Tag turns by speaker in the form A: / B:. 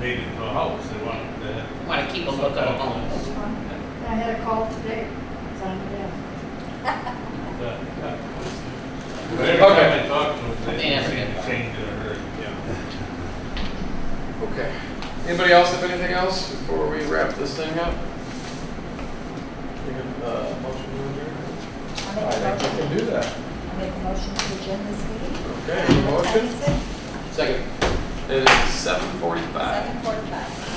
A: dated to a house, they want that.
B: Want to keep a look at homes.
C: I had a call today, it's on the desk.
A: Every time I talk to them,
B: They
A: they
B: never
A: seem
B: get
A: to
B: back.
A: change in a hurry, yeah.
D: Okay. Anybody else have anything else before we wrap this thing up? Think of, uh, motion to adjourn?
E: I
D: I
E: make a
D: think we
E: motion,
D: can do that.
E: I make a motion to adjourn this meeting.
D: Okay, any motion?
E: Second,
D: Second. It is seven forty-five.
E: Seven forty-five.